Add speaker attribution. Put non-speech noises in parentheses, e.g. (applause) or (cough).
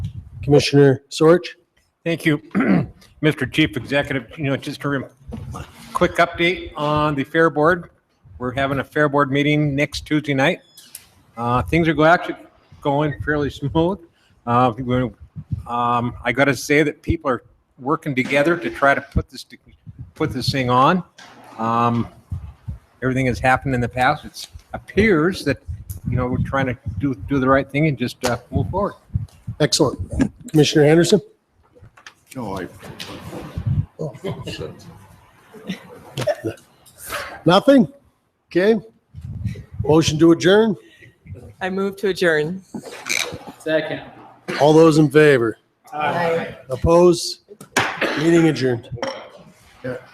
Speaker 1: Commissioner Sorge?
Speaker 2: Thank you, (clears throat) Mr. Chief Executive. You know, just a rem- quick update on the Fair Board. We're having a Fair Board meeting next Tuesday night. Uh, Things are go- actually going fairly smooth. Uh, we- um, I got to say that people are working together to try to put this, to- put this thing on. Um, Everything has happened in the past. It appears that, you know, we're trying to do, do the right thing and just uh, move forward.
Speaker 1: Excellent. Commissioner Anderson?
Speaker 3: No, I.
Speaker 1: Nothing? Okay. Motion to adjourn?
Speaker 4: I move to adjourn.
Speaker 5: Second.
Speaker 1: All those in favor?
Speaker 4: Aye.
Speaker 1: Opposed? Meeting adjourned.